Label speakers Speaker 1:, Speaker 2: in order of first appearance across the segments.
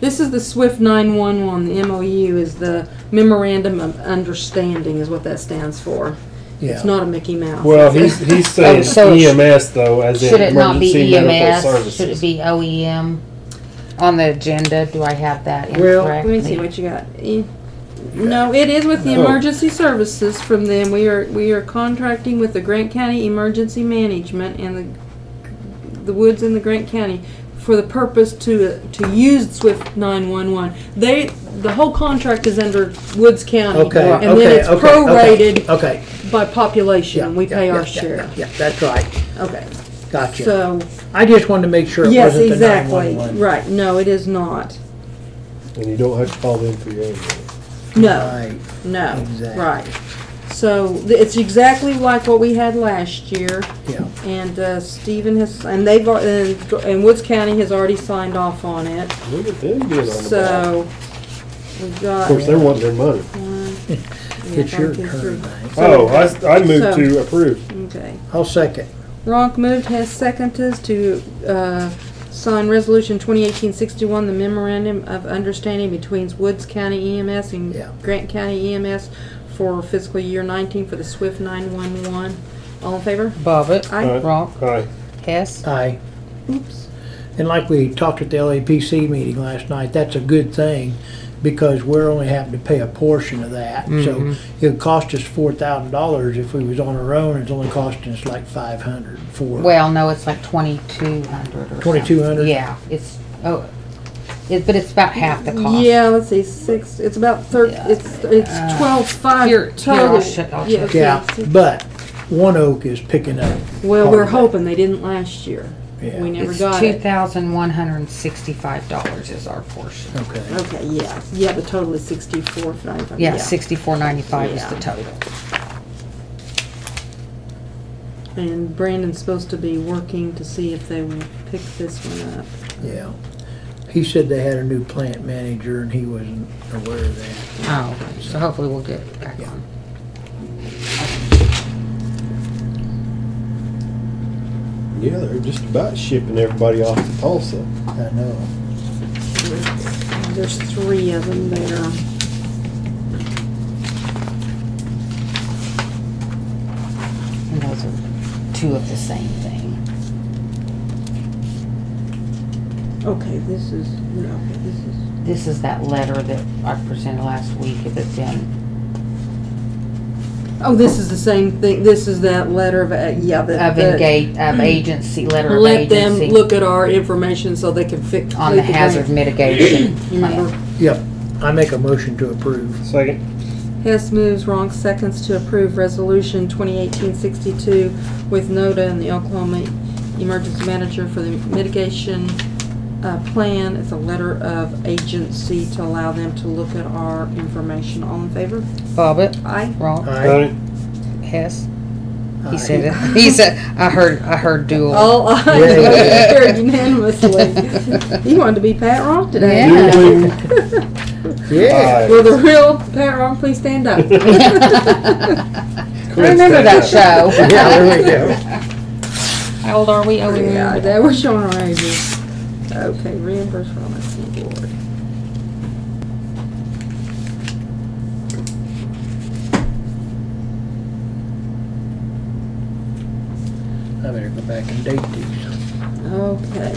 Speaker 1: This is the SWIFT 911, the MOU is the Memorandum of Understanding is what that stands for.
Speaker 2: Yeah.
Speaker 1: It's not a Mickey Mouse.
Speaker 3: Well,
Speaker 1: is it?
Speaker 3: he's, he's
Speaker 2: Oh,
Speaker 3: saying
Speaker 2: so it sh-
Speaker 3: EMS E though, as
Speaker 4: Should
Speaker 3: in
Speaker 4: it not be
Speaker 3: emergency medical
Speaker 4: EMS? Should it
Speaker 3: services.
Speaker 4: be OEM? On the agenda, do I have that
Speaker 3: Well-
Speaker 1: Let me see
Speaker 4: incorrectly?
Speaker 1: what you got. E- No, it is with the
Speaker 3: No.
Speaker 1: emergency services from them. We are, we are contracting with the Grant County Emergency Management and the, the woods in the Grant County for the purpose to, to use Swift nine-one-one. They, the whole contract is under Woods County.
Speaker 2: Okay, okay,
Speaker 1: And then it's
Speaker 2: okay, okay,
Speaker 1: prorated
Speaker 2: Okay.
Speaker 1: by
Speaker 2: Yeah,
Speaker 1: population. We
Speaker 2: yeah,
Speaker 1: pay
Speaker 2: yeah,
Speaker 1: our
Speaker 2: yeah,
Speaker 1: share.
Speaker 2: Yeah, that's right.
Speaker 1: Okay,
Speaker 2: Gotcha.
Speaker 1: so,
Speaker 2: I just wanted to make sure it
Speaker 1: yes,
Speaker 2: wasn't the
Speaker 1: exactly.
Speaker 2: 911.
Speaker 1: Right, no, it is not.
Speaker 3: And you don't have to call them for your own.
Speaker 1: No.
Speaker 2: Right.
Speaker 1: No,
Speaker 2: Exactly.
Speaker 1: right. So th- it's exactly like what we had last year,
Speaker 2: Yeah,
Speaker 1: and uh, Stephen has, and they've, al- and and Woods County has already signed off on it.
Speaker 3: Look at them being on the ball.
Speaker 1: So we've
Speaker 3: Of
Speaker 1: got.
Speaker 3: course, they're wanting their money.
Speaker 1: one, yeah,
Speaker 2: it's your
Speaker 1: one, two,
Speaker 2: turn,
Speaker 1: three.
Speaker 2: Mike.
Speaker 3: Oh, I, I moved
Speaker 1: So-
Speaker 3: to approve.
Speaker 1: Okay.
Speaker 2: I'll second.
Speaker 1: Ronk moved, has seconded to uh, sign Resolution 2018-61, the memorandum of understanding between Woods County EMS
Speaker 2: Yeah.
Speaker 1: and Grant County EMS for fiscal year 19 for the SWIFT 911. All in favor?
Speaker 4: Bobbit,
Speaker 1: Aye.
Speaker 4: Ronk,
Speaker 3: Aye.
Speaker 4: Hess,
Speaker 2: Aye.
Speaker 1: Oops.
Speaker 2: And like we talked at the LAPC meeting last night, that's a good thing because we're only having to pay a portion of that. So it'd cost us four thousand dollars if we was on our own. It's only costing us like five hundred for,
Speaker 4: well, no, it's like twenty-two hundred or something.
Speaker 2: 2200?
Speaker 4: Yeah, it's, oh, it, but it's about half the cost.
Speaker 1: Yeah, let's see, six, it's about thir,
Speaker 4: Yeah.
Speaker 1: it's, it's twelve five
Speaker 4: Uh, Here- here,
Speaker 1: total.
Speaker 4: I'll shut- I'll
Speaker 1: Yeah,
Speaker 4: shut.
Speaker 1: okay,
Speaker 2: yeah.
Speaker 1: six.
Speaker 2: But One Oak is picking up.
Speaker 1: Well, we're
Speaker 2: Hardly.
Speaker 1: hoping they didn't last year.
Speaker 2: Yeah.
Speaker 1: We never
Speaker 4: It's
Speaker 1: got
Speaker 4: two
Speaker 1: it.
Speaker 4: thousand one hundred and sixty-five dollars is our portion.
Speaker 2: Okay.
Speaker 1: Okay, yeah, yeah, the total is sixty-four ninety-five.
Speaker 4: Yeah, sixty-four ninety-five is the
Speaker 1: Yeah.
Speaker 4: total.
Speaker 1: And Brandon's supposed to be working to see if they will pick this one up.
Speaker 2: Yeah. He said they had a new plant manager and he wasn't aware of that.
Speaker 4: Oh, so hopefully we'll get it back on.
Speaker 3: Yeah, they're just about shipping everybody off to Tulsa.
Speaker 2: I know.
Speaker 1: There's three of them there.
Speaker 4: And those are two of the same thing.
Speaker 1: Okay, this is, okay, this is.
Speaker 4: This is that letter that I presented last week, if it's in,
Speaker 1: Oh, this is the same thing, this is that letter of, uh, yeah, the.
Speaker 4: of
Speaker 1: the-
Speaker 4: engage, of agency, letter of
Speaker 1: Let them
Speaker 4: agency.
Speaker 1: look at our information so they can fix.
Speaker 4: On the hazard mitigation plan.
Speaker 1: Remember,
Speaker 2: Yep. I make a motion to approve.
Speaker 3: Second.
Speaker 1: Hess moves, wrong seconds to approve resolution 2018-62 with NODA and the Oklahoma Emergency Manager for the mitigation uh, plan. It's a letter of agency to allow them to look at our information. All in favor?
Speaker 4: Bobbit,
Speaker 1: Aye.
Speaker 4: wrong,
Speaker 2: Aye.
Speaker 4: Hess,
Speaker 2: Aye.
Speaker 4: he said it, he said, I heard, I heard dual.
Speaker 1: All ayes, motion carried unanimously. You wanted to be Pat Ronk today.
Speaker 4: Yeah.
Speaker 3: Duly
Speaker 2: Yeah.
Speaker 3: aye.
Speaker 1: Will the real Pat Ronk please stand up?
Speaker 4: I remember that show.
Speaker 2: Yeah, there we go.
Speaker 4: How old are we? Oh, we
Speaker 1: Yeah,
Speaker 4: are.
Speaker 1: they were showing our ages. Okay, reimburse from the school board.
Speaker 2: I better go back and date these.
Speaker 1: Okay.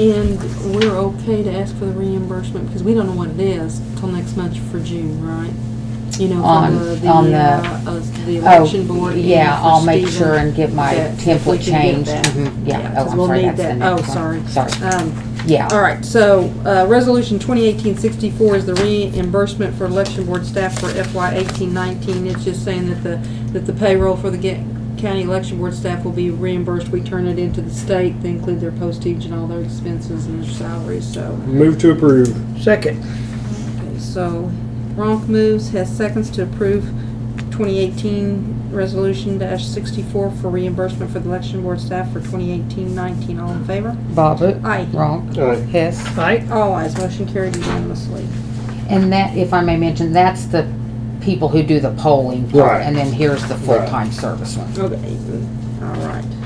Speaker 1: And we're okay to ask for the reimbursement because we don't know what it is till next month for June, right? You know,
Speaker 4: On-
Speaker 1: for the, the,
Speaker 4: on the-
Speaker 1: uh, uh, the
Speaker 4: Oh,
Speaker 1: election board. and
Speaker 4: yeah,
Speaker 1: for
Speaker 4: I'll make
Speaker 1: Stephen.
Speaker 4: sure and get my
Speaker 1: that if we can
Speaker 4: template
Speaker 1: get
Speaker 4: changed.
Speaker 1: that.
Speaker 4: Mhm, yeah. Oh,
Speaker 1: 'cause
Speaker 4: I'm
Speaker 1: we'll
Speaker 4: sorry,
Speaker 1: need
Speaker 4: that's the
Speaker 1: that.
Speaker 4: next
Speaker 1: Oh,
Speaker 4: one.
Speaker 1: sorry.
Speaker 4: Sorry. Uh,
Speaker 1: Um,
Speaker 4: Yeah.
Speaker 1: all right, so, uh, resolution 2018-64 is the reimbursement for election board staff for FY 18-19. It's just saying that the, that the payroll for the ga- county election board staff will be reimbursed. We turn it into the state, they include their postage and all their expenses and their salaries, so.
Speaker 3: Move to approve.
Speaker 2: Second,
Speaker 1: Okay, So, Ronk moves, has seconds to approve 2018 resolution dash 64 for reimbursement for the election board staff for 2018-19. All in favor?
Speaker 4: Bobbit,
Speaker 1: Aye.
Speaker 4: wrong,
Speaker 3: Aye.
Speaker 4: Hess.
Speaker 2: aye,
Speaker 1: All ayes, motion carried unanimously.
Speaker 4: And that, if I may mention, that's the people who do the polling part,
Speaker 3: Right.
Speaker 4: and then here's the
Speaker 3: Right.
Speaker 4: full-time service one.
Speaker 1: Okay. All right.